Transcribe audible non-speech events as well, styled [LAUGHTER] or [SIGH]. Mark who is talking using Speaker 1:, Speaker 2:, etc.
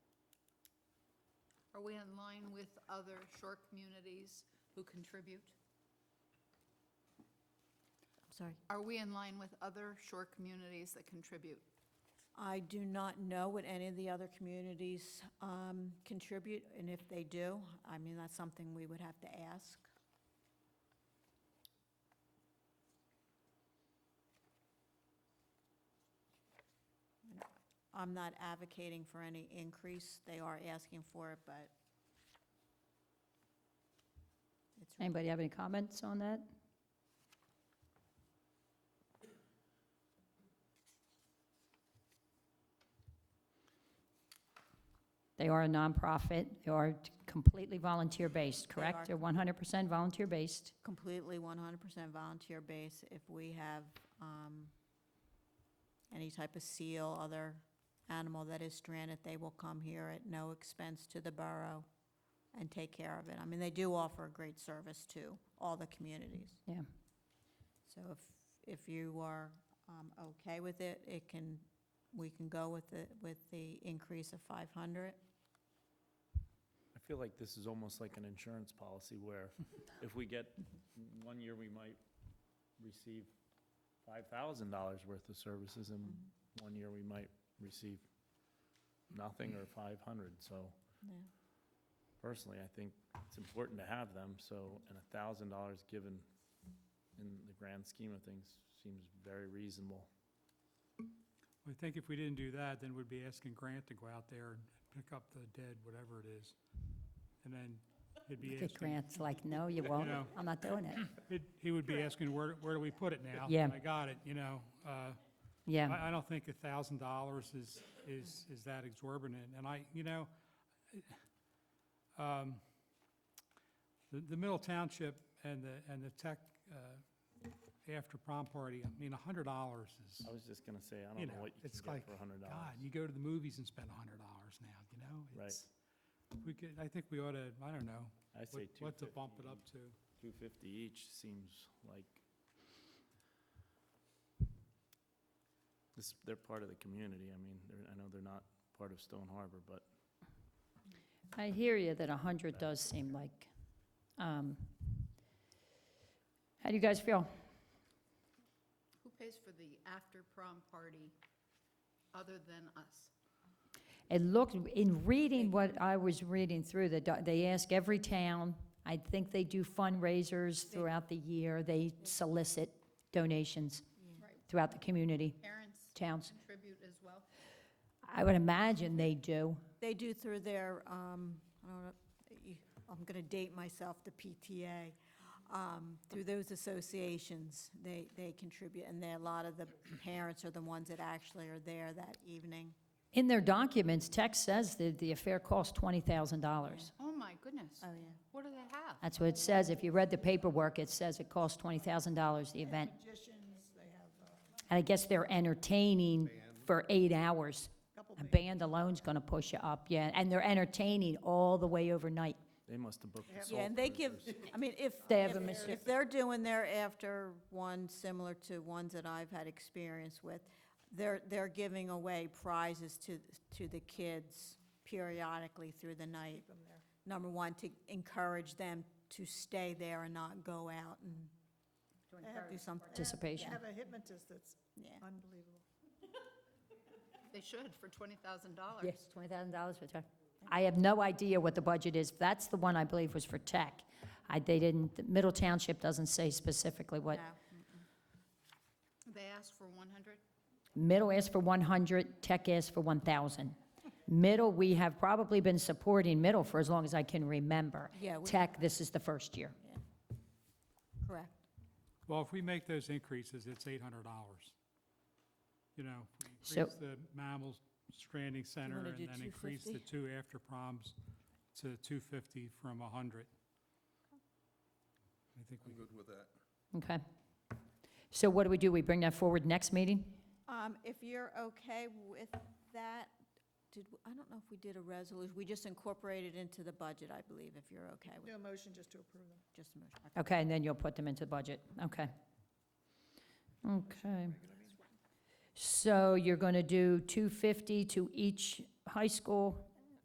Speaker 1: Are we in line with other shore communities who contribute?
Speaker 2: I'm sorry.
Speaker 1: Are we in line with other shore communities that contribute?
Speaker 2: I do not know what any of the other communities um, contribute, and if they do, I mean, that's something we would have to ask. I'm not advocating for any increase. They are asking for it, but it's really
Speaker 3: Anybody have any comments on that? They are a nonprofit. They are completely volunteer-based,
Speaker 2: are.
Speaker 3: correct? They're 100% volunteer-based.
Speaker 2: completely 100% volunteer base. If we have um, any type of seal, other animal that is stranded, they will come here at no expense to the borough and take care of it. I mean, they do offer a great service to all the communities.
Speaker 3: Yeah.
Speaker 2: So if, if you are um, okay with it, it can, we can go with the, with the increase of 500.
Speaker 4: I feel like this is almost like an insurance policy where if we get, one year we might receive five thousand dollars worth of services and one year we might receive nothing or five hundred, so
Speaker 2: Yeah.
Speaker 4: personally, I think it's important to have them, so, and a thousand dollars given in the grand scheme of things seems very reasonable.
Speaker 5: I think if we didn't do that, then we'd be asking Grant to go out there and pick up the dead, whatever it is. And then it'd be
Speaker 3: The
Speaker 5: asking,
Speaker 3: grant's like, no, you won't.
Speaker 5: know.
Speaker 3: I'm not doing [CLEARS THROAT] it.
Speaker 5: it- he would be asking, where, where do we put it now?
Speaker 3: Yeah.
Speaker 5: I got it, you know? uh,
Speaker 3: Yeah.
Speaker 5: I, I don't think a thousand dollars is, is, is that exorbitant, and I, you know, um, the, the Middle Township and the, and the tech, uh, after prom party, I mean, a hundred dollars is,
Speaker 4: I was just gonna say, I
Speaker 5: You
Speaker 4: don't know
Speaker 5: know,
Speaker 4: what you
Speaker 5: it's
Speaker 4: can get
Speaker 5: like,
Speaker 4: for a hundred dollars.
Speaker 5: God, you go to the movies and spend a hundred dollars now, you know?
Speaker 4: Right.
Speaker 5: It's- We could, I think we ought to, I don't know,
Speaker 4: I
Speaker 5: what,
Speaker 4: say two
Speaker 5: what to
Speaker 4: fifty.
Speaker 5: bump it up to.
Speaker 4: Two fifty each seems like this, they're part of the community. I mean, they're, I know they're not part of Stone Harbor, but
Speaker 3: I hear you that 100 does seem like, um, how do you guys feel?
Speaker 1: Who pays for the after-prom party other than us?
Speaker 3: It looked, in reading what I was reading through, the doc- they ask every town, I think they do fundraisers throughout the year, they solicit donations
Speaker 1: Right.
Speaker 3: throughout the community,
Speaker 1: Parents
Speaker 3: towns.
Speaker 1: contribute as well?
Speaker 3: I would imagine they do.
Speaker 2: They do through their, um, I don't know, you- I'm going to date myself, the PTA, um, through those associations, they, they contribute, and they, a lot of the parents are the ones that actually are there that evening.
Speaker 3: In their documents, Tech says that the affair cost $20,000.
Speaker 1: Oh, my goodness.
Speaker 2: Oh, yeah.
Speaker 1: What do they have?
Speaker 3: That's what it says. If you read the paperwork, it says it cost $20,000, the event. And I guess they're entertaining for eight hours. A band alone's going to push you up, yeah, and they're entertaining all the way overnight.
Speaker 4: they must have booked the
Speaker 2: Yeah,
Speaker 4: Soul
Speaker 2: and they give,
Speaker 4: Brothers.
Speaker 2: I mean, if,
Speaker 3: They have a
Speaker 2: if-
Speaker 3: mission.
Speaker 2: if they're doing their after one similar to ones that I've had experience with, they're, they're giving away prizes to, to the kids periodically through the night. Number one, to encourage them to stay there and not go out and do something.
Speaker 3: Participation.
Speaker 6: I have a hypnotist that's
Speaker 2: Yeah.
Speaker 6: unbelievable.
Speaker 1: They should for $20,000.
Speaker 3: Yes, $20,000 for tech. I have no idea what the budget is. That's the one I believe was for tech. I, they didn't, Middle Township doesn't say specifically what.
Speaker 2: No.
Speaker 1: They asked for 100?
Speaker 3: Middle asked for 100, Tech asked for 1,000. Middle, we have probably been supporting Middle for as long as I can remember.
Speaker 2: Yeah, we-
Speaker 3: Tech, this is the first year.
Speaker 2: Correct.
Speaker 5: Well, if we make those increases, it's eight hundred dollars. You know, if we
Speaker 3: So-
Speaker 5: increase the mammals stranding center
Speaker 2: wanna
Speaker 5: and
Speaker 2: do
Speaker 5: then increase the two after proms to two fifty from a hundred. I think we
Speaker 7: I'm good with that.
Speaker 3: Okay. So what do we do? We bring that forward next meeting?
Speaker 2: Um, If you're okay with that, did, I don't know if we did a resolution, we just incorporated into the budget, I believe, if you're okay with,
Speaker 6: Do a motion just to approve them.
Speaker 2: just a motion. Okay.
Speaker 3: Okay, and then you'll put them into the budget. Okay. Okay. So you're going to do 250 to each high school